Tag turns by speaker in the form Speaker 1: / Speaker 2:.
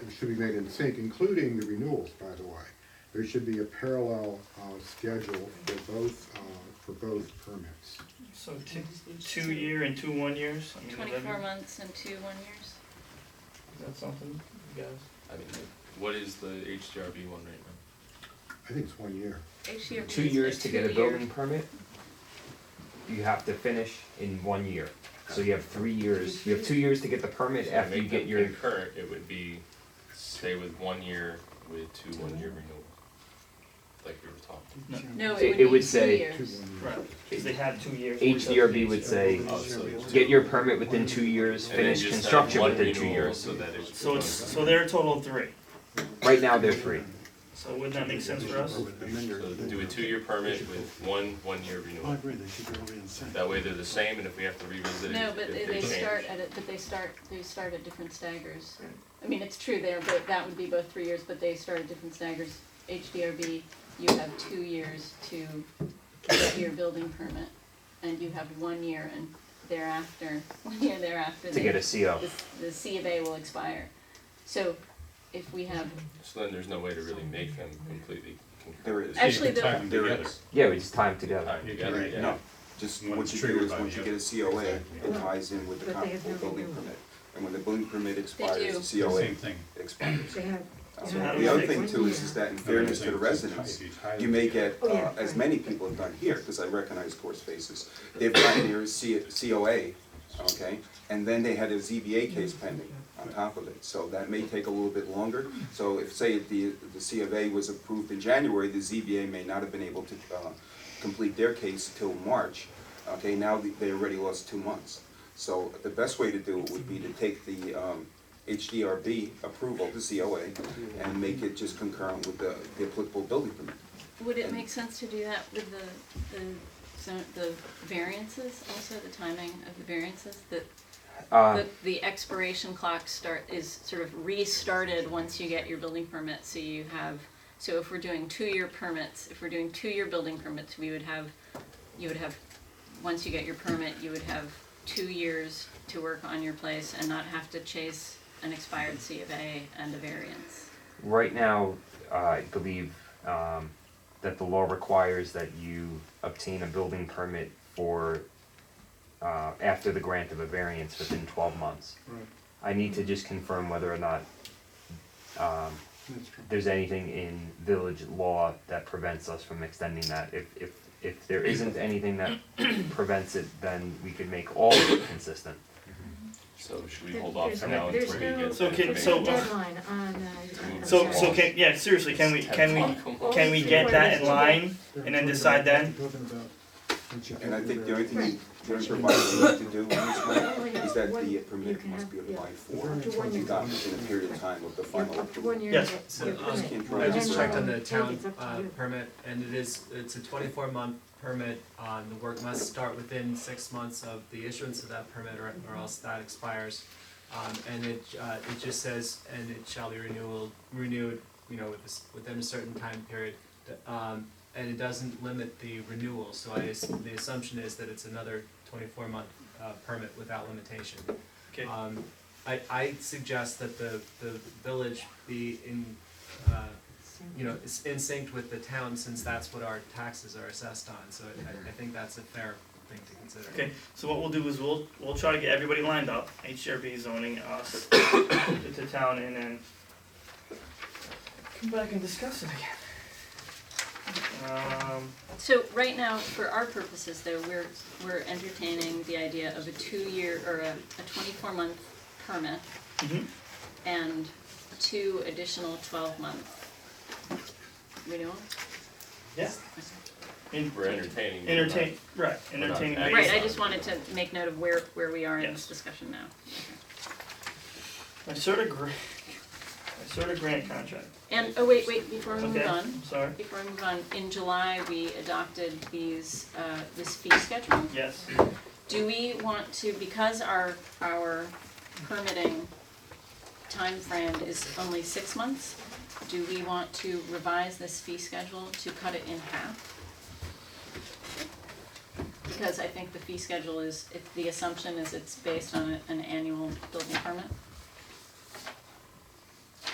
Speaker 1: should be made in sync, including the renewals, by the way. There should be a parallel, uh, schedule for both, uh, for both permits.
Speaker 2: So two, two year and two one years, I mean, is
Speaker 3: Twenty-four
Speaker 2: that,
Speaker 3: months and two one years.
Speaker 2: is that something, you guys?
Speaker 4: I mean, what is the HDRB one right now?
Speaker 1: I think it's one year.
Speaker 3: HDRB
Speaker 5: Two
Speaker 3: is
Speaker 5: years to get a
Speaker 3: two-year-
Speaker 5: building permit, you have to finish in one year. So you have three years, you have two years to get the permit
Speaker 4: So
Speaker 5: after
Speaker 4: make
Speaker 5: you get
Speaker 4: them
Speaker 5: your,
Speaker 4: Concurrent, it would be, stay with one year with two one-year renewals, like we were talking.
Speaker 2: No,
Speaker 3: No,
Speaker 5: It-
Speaker 3: it would
Speaker 5: it
Speaker 3: be
Speaker 5: would
Speaker 3: two
Speaker 5: say-
Speaker 1: Two,
Speaker 3: years.
Speaker 1: one year.
Speaker 2: right, cause they had two years.
Speaker 5: HDRB would say, get your permit within two years,
Speaker 4: Oh, And then
Speaker 5: finish
Speaker 4: just have
Speaker 5: construction
Speaker 4: one
Speaker 5: within two
Speaker 4: renewal
Speaker 5: years.
Speaker 4: So that it's.
Speaker 2: So it's, so they're a total of three,
Speaker 5: Right now, they're free.
Speaker 2: so wouldn't that make sense for us?
Speaker 4: So do a two-year permit with one one-year
Speaker 6: I
Speaker 4: renewal.
Speaker 6: agree, they should go away and say.
Speaker 4: That way they're the same, and if we have to revisit it,
Speaker 3: No,
Speaker 4: if
Speaker 3: but they,
Speaker 4: they change.
Speaker 3: they start at it, but they start, they start at different staggers. I mean, it's true there, but that would be both three years, but they start at different staggers. HDRB, you have two years to get your building permit, and you have one year and thereafter, one year thereafter.
Speaker 5: To get a CO.
Speaker 3: The, the C of A will expire. So if we have,
Speaker 4: So then there's no way to really make them completely
Speaker 7: There
Speaker 4: concurrent.
Speaker 7: is.
Speaker 3: Actually, the-
Speaker 7: There is.
Speaker 5: Yeah, we just tie them together.
Speaker 4: Alright, you got it, yeah.
Speaker 7: No, just what you do
Speaker 6: triggered
Speaker 7: is
Speaker 6: by
Speaker 7: once you
Speaker 6: the
Speaker 7: get a COA, it ties in with the
Speaker 8: But they have
Speaker 7: comparable
Speaker 8: no
Speaker 7: building
Speaker 8: renewal.
Speaker 7: permit. And when the building permit
Speaker 3: do.
Speaker 7: expires, the
Speaker 6: The
Speaker 7: COA
Speaker 6: Same thing.
Speaker 7: expires.
Speaker 8: They have.
Speaker 2: So how do we
Speaker 7: The other
Speaker 2: fix
Speaker 7: thing
Speaker 8: it?
Speaker 7: too is, is that in fairness to the residents, you may get,
Speaker 8: Oh,
Speaker 7: uh,
Speaker 8: yeah,
Speaker 7: as
Speaker 8: right.
Speaker 7: many people have done here, because I recognize course faces. They've gotten their C- COA, okay, and then they had a ZBA case pending on top of it. So that may take a little bit longer. So if, say, the, the C of A was approved in January, the ZBA may not have been able to, uh, complete their case till March. Okay, now they- they already lost two months. So the best way to do it would be to take the, um, HDRB approval, the COA, and make it just concurrent with the, the applicable building permit.
Speaker 3: would it make sense to do that with the, the, zone- the variances, also the timing of the variances? That
Speaker 5: Uh,
Speaker 3: The, the expiration clock start, is sort of restarted once you get your building permit, so you have, so if we're doing two-year permits, if we're doing two-year building permits, we would have, you would have, once you get your permit, you would have two years to work on your place and not have to chase an expired C of A and a variance.
Speaker 5: right now, uh, I believe, um, that the law requires that you obtain a building permit for, uh, after the grant of a variance within twelve months.
Speaker 1: Right,
Speaker 5: I need to just confirm whether or not um,
Speaker 1: that's true.
Speaker 5: there's anything in village law that prevents us from extending that. If, if, if there isn't anything that prevents it, then we could make all of it consistent.
Speaker 4: So should we
Speaker 8: There-
Speaker 4: hold off
Speaker 8: there's
Speaker 4: for
Speaker 8: no-
Speaker 4: now until
Speaker 8: there's
Speaker 4: we get?
Speaker 8: no-
Speaker 4: the
Speaker 2: So can-
Speaker 8: There's
Speaker 2: so-
Speaker 8: a
Speaker 4: information?
Speaker 8: deadline on, uh, I'm
Speaker 2: So,
Speaker 8: sorry.
Speaker 2: so can, yeah, seriously, can we, can we, can we get that in line? And then decide then?
Speaker 7: And I think the only thing,
Speaker 8: Right.
Speaker 7: the only proviso you have to do on this
Speaker 8: Oh,
Speaker 7: one
Speaker 8: yeah.
Speaker 7: is that
Speaker 8: One-
Speaker 7: the
Speaker 8: you
Speaker 7: permit
Speaker 8: can
Speaker 7: must
Speaker 8: have-
Speaker 7: be
Speaker 8: yeah.
Speaker 7: applied
Speaker 8: Up
Speaker 7: for,
Speaker 8: to one year.
Speaker 7: without within uh, a period of time of the
Speaker 8: You're
Speaker 7: final
Speaker 8: up to one
Speaker 7: approval.
Speaker 8: year.
Speaker 2: Yes.
Speaker 8: to get your
Speaker 9: Uh,
Speaker 8: permit.
Speaker 7: I
Speaker 9: I just
Speaker 8: And
Speaker 9: checked
Speaker 8: then
Speaker 9: on the
Speaker 8: it's
Speaker 9: town
Speaker 8: up to
Speaker 9: uh
Speaker 8: you.
Speaker 9: permit and it is, it's a twenty-four month permit, um the work must start within six months of the issuance of that permit or or else that expires. Um and it uh it just says, and it shall be renewal renewed, you know, with this, within a certain time period. Th- Um and it doesn't limit the renewal, so I, as- the assumption is that it's another twenty-four month uh permit without limitation.
Speaker 2: Okay,
Speaker 9: Um, I, I suggest that the, the village be in, uh, you know, is in sync with the town since that's what our taxes are assessed on, so I, I think that's a fair thing to consider.
Speaker 2: okay, so what we'll do is we'll, we'll try to get everybody lined up, HDRB zoning, us, to the town, and then come back and discuss it again. Um,
Speaker 3: So right now, for our purposes though, we're, we're entertaining the idea of a two-year or a, a twenty-four month permit
Speaker 2: mhm.
Speaker 3: and two additional twelve month renewal.
Speaker 2: yeah, and
Speaker 4: We're entertaining. but we're not-
Speaker 2: entertain, right,
Speaker 4: not
Speaker 2: entertaining.
Speaker 4: acting.
Speaker 3: Right, I just wanted to make note of where, where we are in this
Speaker 2: Yes.
Speaker 3: discussion now.
Speaker 2: My sort of grant, my sort of grant contract,
Speaker 3: And, oh, wait, wait, before we move
Speaker 2: okay,
Speaker 3: on,
Speaker 2: I'm sorry,
Speaker 3: before we move on, in July, we adopted these, uh, this fee schedule.
Speaker 2: yes,
Speaker 3: Do we want to, because our, our permitting timeframe is only six months, do we want to revise this fee schedule to cut it in half? Because I think the fee schedule is, if the assumption is it's based on a- an annual building permit.